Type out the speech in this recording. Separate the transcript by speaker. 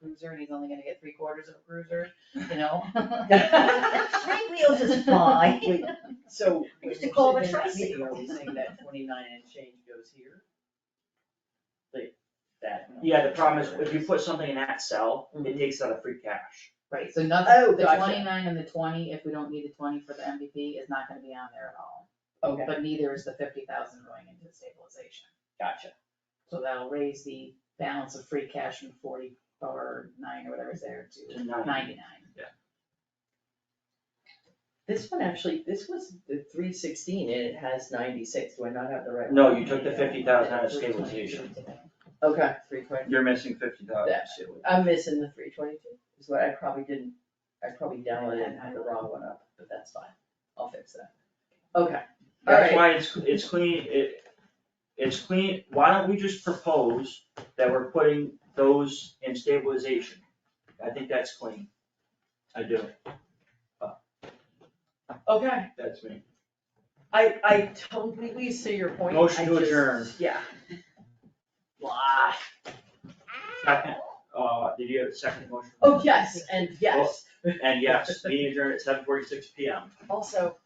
Speaker 1: cruiser and he's only gonna get three quarters of a cruiser, you know?
Speaker 2: Three wheels is fine.
Speaker 3: So.
Speaker 2: I used to call it a
Speaker 3: in that meeting,
Speaker 2: tricycle.
Speaker 3: Are we saying that twenty-nine and change goes here? Like, that.
Speaker 4: Yeah, the problem is if you put something in that cell, it
Speaker 3: Mhm.
Speaker 4: takes out of free cash.
Speaker 1: Right, so nothing,
Speaker 2: Oh,
Speaker 1: the
Speaker 2: gotcha.
Speaker 1: twenty-nine and the twenty, if we don't need the twenty for the MVP, is not gonna be on there at all.
Speaker 3: Okay,
Speaker 1: But neither is the fifty thousand going into the stabilization.
Speaker 3: gotcha.
Speaker 1: So that'll raise the balance of free cash from forty or nine or whatever's there to
Speaker 4: To nine.
Speaker 1: ninety-nine.
Speaker 3: This one actually, this was the three sixteen and it has ninety-six, do I not have the right?
Speaker 4: No,
Speaker 3: one?
Speaker 4: you took the fifty thousand out of stabilization.
Speaker 3: Okay, three twenty,
Speaker 5: You're missing fifty thousand.
Speaker 3: that shit, I'm missing the three twenty-two, is what I probably didn't, I probably downloaded and had the wrong one up, but that's fine, I'll fix that. Okay,
Speaker 4: That's
Speaker 3: alright,
Speaker 4: why it's, it's clean, it, it's clean, why don't we just propose that we're putting those in stabilization? I think that's clean.
Speaker 5: I do,
Speaker 3: okay,
Speaker 5: that's me.
Speaker 3: I, I completely see your point.
Speaker 4: Motion
Speaker 3: I
Speaker 4: to
Speaker 3: just-
Speaker 4: adjourn.
Speaker 3: Yeah.
Speaker 4: Blah. Second, uh, did you have a second motion?
Speaker 3: Oh, yes, and yes,
Speaker 4: And yes, meeting adjourned at seven forty-six P M.
Speaker 3: also,